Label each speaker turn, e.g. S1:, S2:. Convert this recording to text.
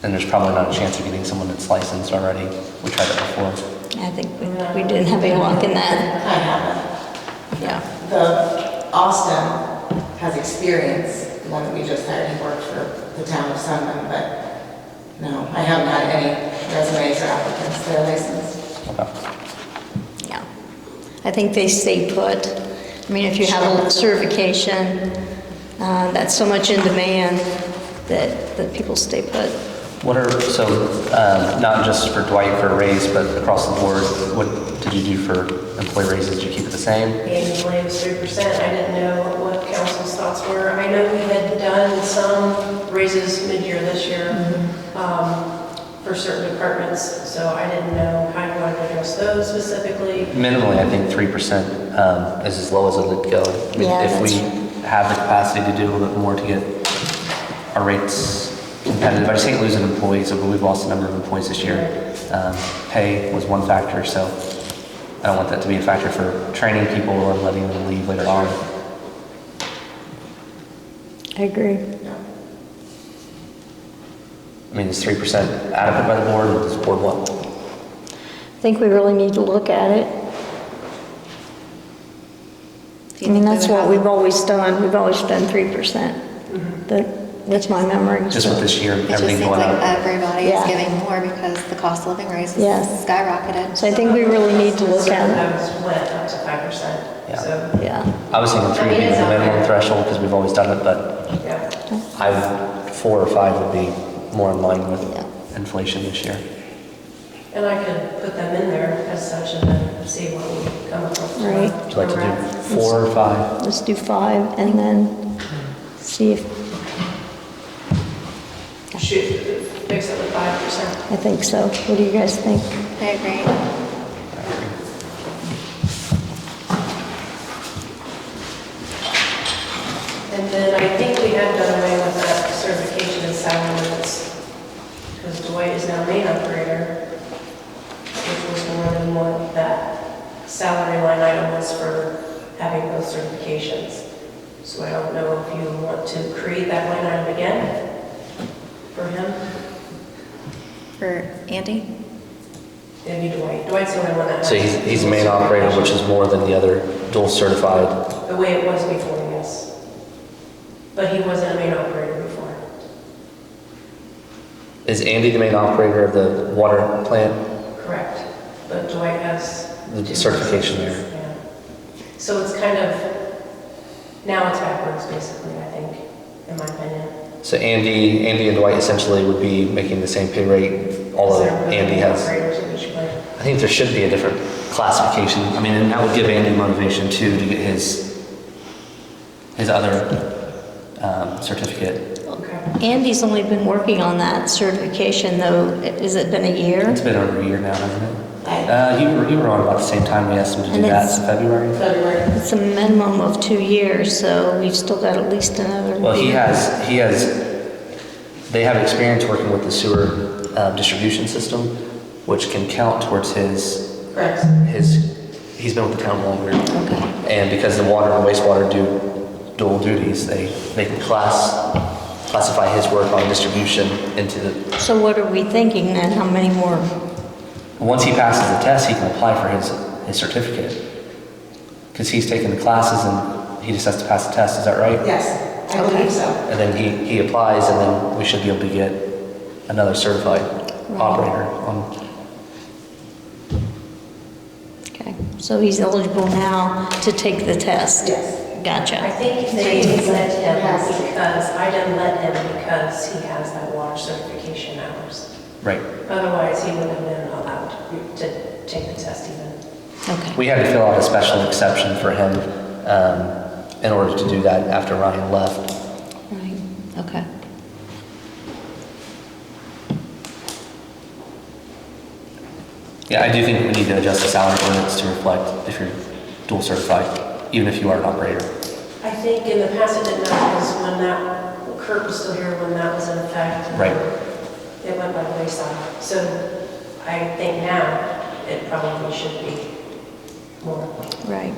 S1: then there's probably not a chance of getting someone that's licensed already. We tried that before.
S2: I think we we did have a walk in that,
S3: I haven't.
S2: yeah.
S3: The Austin has experience, the one that we just hired, he worked for the town of Sunland, but no, I haven't had any resumes or applicants that are licensed.
S1: Okay.
S2: Yeah. I think they stay put. I mean, if you have a certification, uh, that's so much in demand that, that people stay put.
S1: What are, so, um, not just for Dwight for a raise, but across the board, what did you do for employee raises? Did you keep it the same?
S4: Annually, it was three percent. I didn't know what council's thoughts were. I know we had done some raises mid-year this year
S2: Mm-hmm.
S4: um, for certain departments, so I didn't know how you wanted to address those specifically.
S1: Minimally, I think 3% um, is as low as it would go. I mean,
S2: Yeah,
S1: If we
S2: that's-
S1: have the capacity to do a little bit more to get our rates competitive, I just hate losing employees, but we've lost a number of employees this year. Um, Pay was one factor, so I don't want that to be a factor for training people or letting them leave later on.
S2: I agree.
S3: No.
S1: I mean, is 3% adequate by the board, or does the board want?
S2: I think we really need to look at it. I mean, that's what we've always done. We've always done 3%. That, that's my memory.
S1: Just with this year,
S5: It just
S1: everything
S5: seems
S1: going
S5: like
S1: up.
S5: everybody
S2: Yeah.
S5: is giving more because the cost of living raises
S2: Yes.
S5: skyrocketed.
S2: So I think we really need to look
S4: Some of
S2: at
S4: those went up to five percent,
S1: Yeah.
S2: it.
S4: so,
S2: Yeah,
S1: I was thinking three would be the minimum threshold, because we've always done it, but
S4: yeah.
S1: I, four or five would be more in line
S2: Yeah.
S1: with inflation this year.
S4: And I could put them in there as such and then see what we come up with.
S2: Right.
S1: Would you like to do four or five?
S2: let's do five and then see if,
S4: Shoot, fix it with five percent.
S2: I think so. What do you guys think?
S5: I agree.
S4: And then I think we have done away with that certification and salary limits. Because Dwight is now main operator, which was more than what that salary line item was for having those certifications. So I don't know if you want to create that line item again for him.
S5: For Andy?
S4: It'd be Dwight. Dwight's the only one that.
S1: So he's, he's the main operator, which is more than the other dual certified.
S4: The way it was before, yes. But he wasn't a main operator before.
S1: Is Andy the main operator of the water plant?
S4: Correct. But Dwight has.
S1: The
S4: two
S1: certification
S4: licenses, yeah. So it's kind of, now it's backwards, basically, I think, in my opinion.
S1: So Andy, Andy and Dwight essentially would be making the same pay rate, although
S4: Because they're
S1: Andy
S4: main
S1: has.
S4: Operators of each plant.
S1: I think there should be a different classification. I mean, and that would give Andy motivation too to get his, his other, um, certificate.
S4: Okay.
S2: Andy's only been working on that certification though, has it been a year?
S1: It's been over a year now, hasn't it?
S3: I-
S1: Uh, you were, you were on about the same time we asked him to do
S2: And
S1: that,
S2: it's-
S1: in February?
S3: February.
S2: It's a minimum of two years, so we've still got at least another.
S1: Well, he
S2: year.
S1: has, he has, they have experience working with the sewer uh, distribution system, which can count towards his,
S3: Correct.
S1: his, he's been with the town longer. And because the water and wastewater do dual duties, they, they can class, classify his work on distribution into the,
S2: So what are we thinking then? How many more?
S1: once he passes the test, he can apply for his, his certificate. Because he's taken the classes and he just has to pass the test, is that right?
S3: Yes, I believe so.
S1: And then he, he applies, and then we should be able to get another certified operator on,
S2: Okay, so he's eligible now to take the test?
S3: Yes.
S4: I
S2: Gotcha.
S4: think they let
S3: Yes.
S4: him because, I didn't let him because he has that water certification hours.
S1: right.
S4: Otherwise, he wouldn't have been allowed to take the test even.
S2: Okay.
S1: We had to fill out a special exception for him um, in order to do that after Ryan left.
S2: Right, okay.
S1: Yeah, I do think we need to adjust the salary ordinance to reflect if you're dual certified, even if you are an operator.
S4: I think in the past it didn't matter because when that, Kurt was still here when that was in effect.
S1: Right.
S4: It went by the wayside. So I think now it probably should be more.
S2: Right.